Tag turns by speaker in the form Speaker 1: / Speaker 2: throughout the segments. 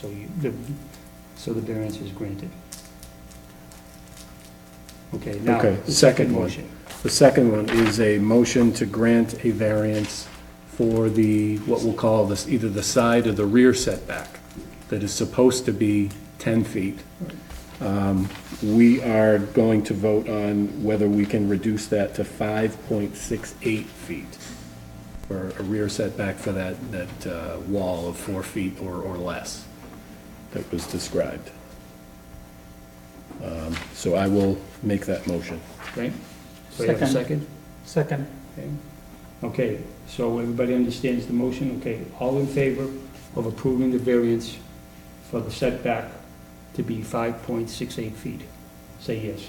Speaker 1: So you, the, so the variance is granted. Okay, now,
Speaker 2: Okay,
Speaker 1: the
Speaker 2: second
Speaker 1: second
Speaker 2: one.
Speaker 1: motion.
Speaker 2: The second one is a motion to grant a variance for the, what we'll call this, either the side or the rear setback that is supposed to be 10 feet. Um, We are going to vote on whether we can reduce that to 5.68 feet for a rear setback for that, that uh, wall of four feet or, or less that was described. Um, So I will make that motion.
Speaker 1: Okay? So you have a second?
Speaker 3: Second.
Speaker 1: Okay. Okay, so everybody understands the motion? Okay, all in favor of approving the variance for the setback to be 5.68 feet? Say yes.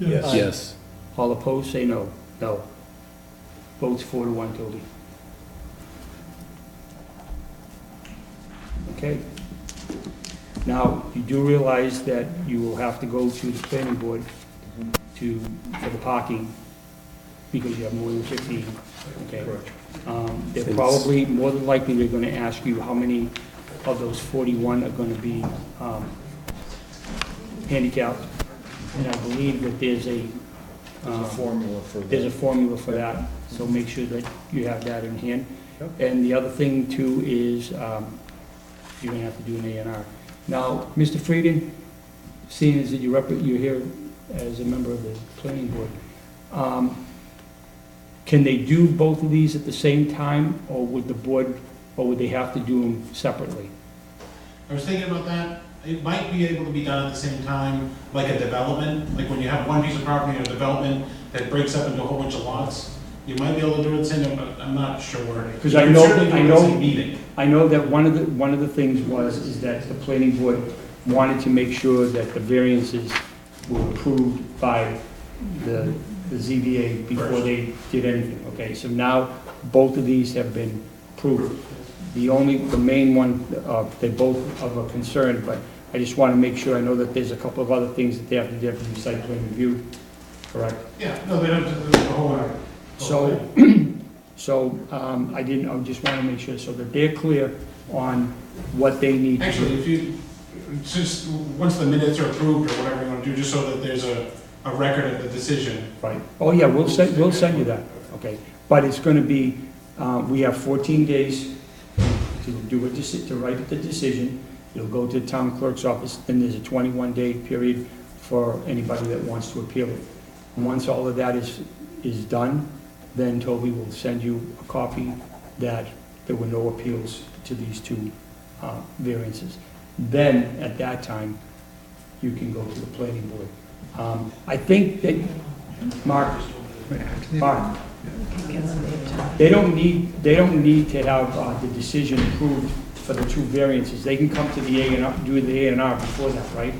Speaker 3: Yes.
Speaker 2: Yes.
Speaker 1: All opposed, say no. No. Votes four to one, Toby. Okay. Now, you do realize that you will have to go to the planning board to, for the parking, because you have more than fifteen, okay? Um, They're
Speaker 2: It's-
Speaker 1: probably, more than likely, they're gonna ask you how many of those forty-one are gonna be, um, handicapped. And I believe that there's a,
Speaker 4: There's a
Speaker 1: um,
Speaker 4: formula for
Speaker 1: there's a
Speaker 4: that.
Speaker 1: formula for that, so make sure that you have that in hand.
Speaker 4: Yep.
Speaker 1: And the other thing too is, um, you're gonna have to do an A and R. Now, Mr. Frieden, seeing as that you rep, you're here as a member of the planning board, um, can they do both of these at the same time, or would the board, or would they have to do them separately?
Speaker 5: I was thinking about that, it might be able to be done at the same time, like a development, like when you have one piece of property or development that breaks up into a whole bunch of lots, you might be able to do it the same, but I'm not sure.
Speaker 1: 'Cause I know-
Speaker 5: You can certainly do it
Speaker 1: I
Speaker 5: in the
Speaker 1: know-
Speaker 5: same Meeting.
Speaker 1: I know that one of the, one of the things was, is that the planning board wanted to make sure that the variances were approved by the, the ZBA before they did anything, okay? So now, both of these have been approved. The only, the main one, uh, they both of a concern, but I just want to make sure, I know that there's a couple of other things that they have to do for the site plan review, correct?
Speaker 5: Yeah, no, they don't, do the whole lot.
Speaker 1: So, so um, I didn't, I just want to make sure, so that they're clear on what they need to
Speaker 5: Actually,
Speaker 1: do.
Speaker 5: if you, just, once the minutes are approved or whatever you wanna do, just so that there's a, a record of the decision.
Speaker 1: Right. Oh, yeah, we'll send, we'll send you that, okay? But it's going to be, uh, we have 14 days to do a, deci- to write the decision. It'll go to the town clerk's office, then there's a 21-day period for anybody that wants to appeal it. And Once all of that is, is done, then Toby will send you a copy that there were no appeals to these two uh, variances. Then, at that time, you can go to the planning board. Um, I think that, Mark, Mark, they don't need, they don't need to have uh, the decision approved for the two variances. They can come to the A and R, do the A and R before that, right?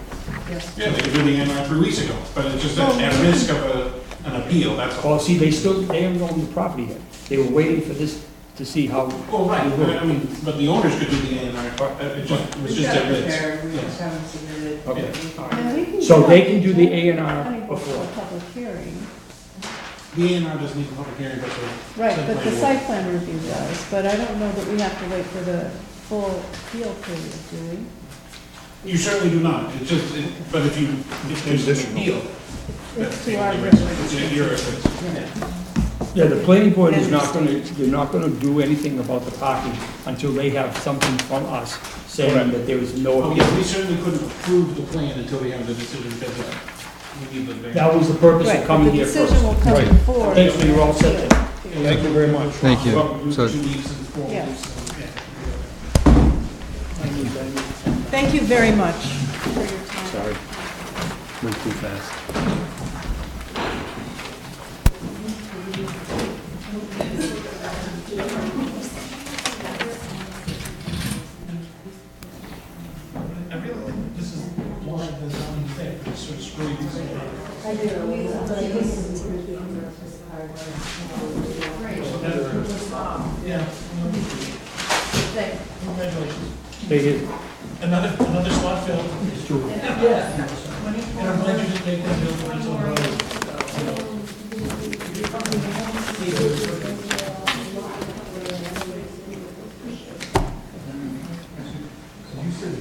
Speaker 5: Yeah, they could do the A and R three weeks ago, but it's just at, at risk of a, an appeal, that's all.
Speaker 1: Well, see, they still, they haven't owned the property yet. They were waiting for this, to see how,
Speaker 5: Well, Oh, right, but I mean, but the owners could do the A and R, but uh, it just, it was just at risk.
Speaker 6: We
Speaker 5: Yeah.
Speaker 6: just haven't submitted.
Speaker 1: okay, all right.
Speaker 7: And we can
Speaker 1: So
Speaker 7: go
Speaker 1: they
Speaker 7: up
Speaker 1: can
Speaker 7: to
Speaker 1: do the
Speaker 7: town-
Speaker 1: A and R
Speaker 7: planning board for
Speaker 1: before.
Speaker 7: a Public hearing.
Speaker 5: The A and R doesn't need a public hearing, but the.
Speaker 7: Right,
Speaker 5: site
Speaker 7: but the
Speaker 5: plan
Speaker 7: site plan review does, but I don't know that we have to wait for the full appeal period, do we?
Speaker 5: will. You certainly do not, it's just, it- but if you, if there's an appeal.
Speaker 7: It's
Speaker 5: that's
Speaker 7: to
Speaker 5: the
Speaker 7: our
Speaker 5: only risk. It's
Speaker 7: advantage.
Speaker 5: at your risk.
Speaker 1: Yeah, the planning board is not gonna, they're not gonna do anything about the parking until they have something from us saying that there is no
Speaker 5: Oh,
Speaker 1: appeal.
Speaker 5: yeah, we certainly couldn't approve the plan until we have the decision, because uh, we need the. variance.
Speaker 1: That was the purpose of
Speaker 7: Right,
Speaker 1: coming
Speaker 7: but
Speaker 1: here
Speaker 7: the
Speaker 1: first.
Speaker 7: decision will come
Speaker 2: Right.
Speaker 7: before.
Speaker 1: Thanks, we were all set there.
Speaker 5: Thank you very much.
Speaker 4: Thank you.
Speaker 5: Welcome,
Speaker 4: So-
Speaker 5: two weeks and four
Speaker 7: Yeah.
Speaker 5: weeks, and, yeah.
Speaker 6: Thank you very much.
Speaker 2: Sorry. Went too fast.
Speaker 5: I really think this is why the zoning thing, it's sort of screwing things up. Yeah. Congratulations.
Speaker 1: They did.
Speaker 5: Another, another slot filled. Yeah. And I'm glad you didn't take that bill for it, it's all right.